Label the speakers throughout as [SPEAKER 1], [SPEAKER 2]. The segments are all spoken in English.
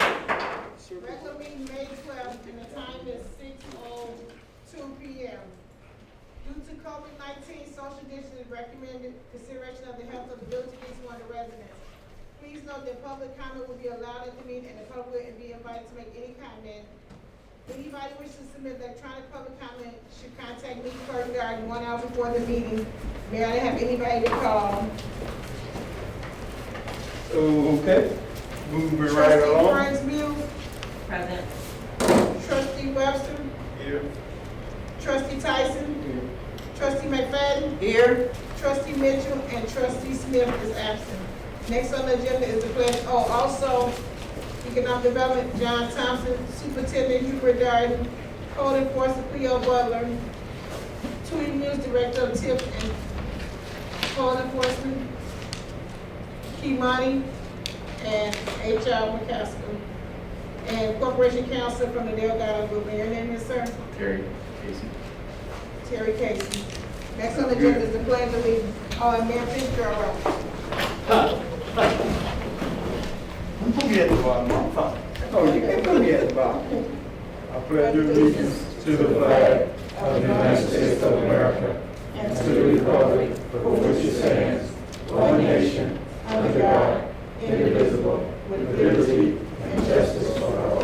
[SPEAKER 1] oh COVID nineteen, social distancing is recommended, consideration of the health of the village needs one of the residents. Please note that public comment will be allowed at the meeting and the public will be invited to make any comment. Anybody wishing to submit electronic public comment should contact me first regarding one hour before the meeting. May I have anybody to call?
[SPEAKER 2] Okay, moving right
[SPEAKER 1] Trustee
[SPEAKER 2] along.
[SPEAKER 1] Burns Mew,
[SPEAKER 3] Present.
[SPEAKER 1] trustee Webster,
[SPEAKER 2] Here.
[SPEAKER 1] trustee Tyson, trustee McFadden,
[SPEAKER 3] Here.
[SPEAKER 1] Trustee Mitchell and trustee Smith is absent. Next on the agenda is the pledge, oh, also economic development, John Thompson, superintendent Hubert Darden, code enforcer Cleo Butler, Tweet News Director of TIP and code enforcement Kimani and HR McCaskill, and corporation counsel from the Delgado Group. May your name is, sir?
[SPEAKER 2] Terry, Casey.
[SPEAKER 1] Terry Casey. Next on the agenda is the pledge of allegiance. Oh, and Mayor Fitzgerald
[SPEAKER 2] You put me at the bottom, I'm fine. Oh, you can put me at the bottom. I pledge allegiance to the flag
[SPEAKER 4] of the United States of America and to the republic for which it stands, one nation, under God, indivisible, with liberty and justice for all.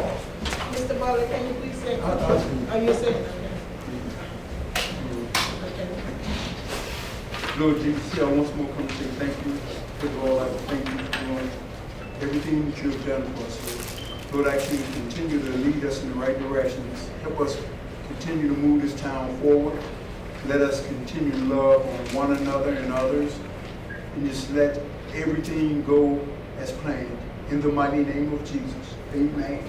[SPEAKER 1] Mr. Butler, can you please say? Oh, you said, okay. Okay.
[SPEAKER 2] Lord Jesus, I once more come to say thank you. First of all, I'd like to thank you for doing everything that you have done for us, Lord. Lord, I ask you to continue to lead us in the right directions. Help us continue to move this town forward. Let us continue to love on one another and others. And just let everything go as planned. In the mighty name of Jesus, amen.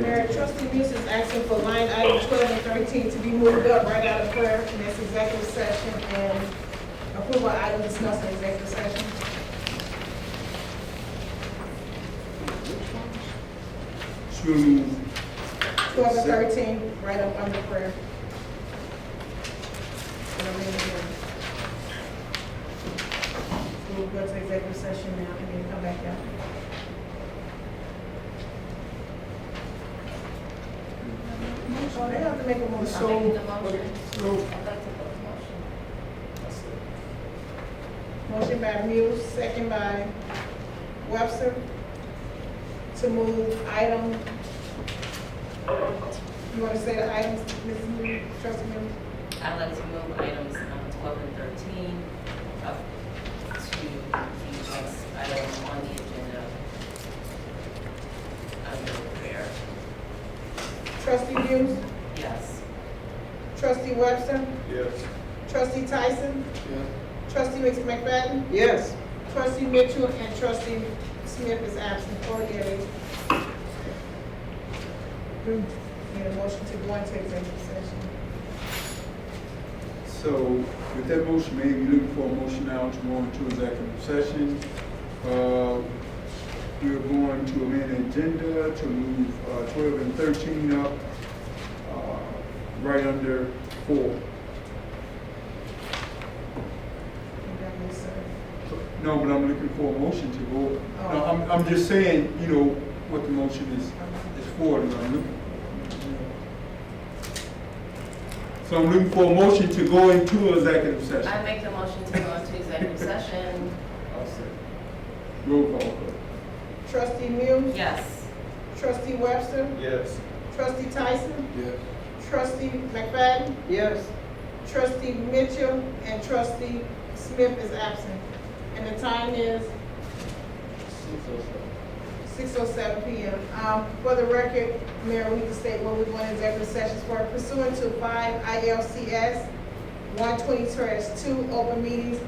[SPEAKER 1] Mayor, trustee Muse is asking for line item twelve and thirteen to be moved up right out of prayer, and that's executive session and approval item discussed in executive session.
[SPEAKER 2] So moved.
[SPEAKER 1] Twelve and thirteen, right up under prayer. And I'm in again. We'll go to executive session now and then come back out. Oh, they have to make a motion.
[SPEAKER 2] So, so,
[SPEAKER 1] Motion by Muse, second by Webster, to move item. You want to say the items, Mrs. Muse, trustee Muse?
[SPEAKER 3] I'd like to move items um, 12 and 13 up to the next item on the agenda under prayer.
[SPEAKER 1] Trustee Muse,
[SPEAKER 3] Yes.
[SPEAKER 1] trustee Webster,
[SPEAKER 2] yes.
[SPEAKER 1] trustee Tyson,
[SPEAKER 2] Yes.
[SPEAKER 1] trustee McFadden,
[SPEAKER 2] Yes.
[SPEAKER 1] trustee Mitchell, and trustee Smith is absent, four yeas. Need a motion to go into executive session.
[SPEAKER 2] So with that motion made, we looking for a motion now to go into executive session. Uh, We're going to amend the agenda to move uh, 12 and 13 up, uh, right under four.
[SPEAKER 1] Madam Mayor, sir.
[SPEAKER 2] No, but I'm looking for a motion to go. No, I'm, I'm just saying, you know, what the motion is, is for, and I'm looking. So I'm looking for a motion to go into executive session.
[SPEAKER 3] I make the motion to go into executive session.
[SPEAKER 2] I'll say. Roll call, please.
[SPEAKER 1] Trustee Muse,
[SPEAKER 3] Yes.
[SPEAKER 1] trustee Webster,
[SPEAKER 2] Yes.
[SPEAKER 1] trustee Tyson,
[SPEAKER 2] Yes.
[SPEAKER 1] Trustee McFadden? Yes. Trustee Mitchell and trustee Smith is absent. And the time is? Six oh seven. P M. Um, for the record, Mayor, we need to state what we want executive sessions for pursuant to five I L C S one twenty two, open meetings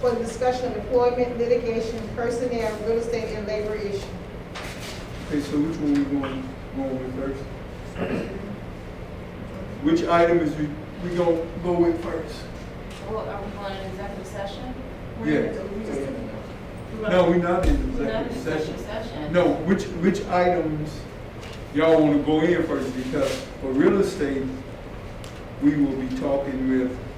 [SPEAKER 1] for the discussion of employment, litigation, personnel, real estate, and labor issue.
[SPEAKER 2] Okay, so which one we going, going with first? Which item is we, we gonna go with first?
[SPEAKER 3] Well, are we going into executive session?
[SPEAKER 1] We're
[SPEAKER 2] Yeah.
[SPEAKER 1] gonna do- we just-
[SPEAKER 2] No, we not in
[SPEAKER 3] We're not in
[SPEAKER 2] executive session.
[SPEAKER 3] session.
[SPEAKER 2] No, which, which items y'all wanna go in first, because for real estate, we will be talking with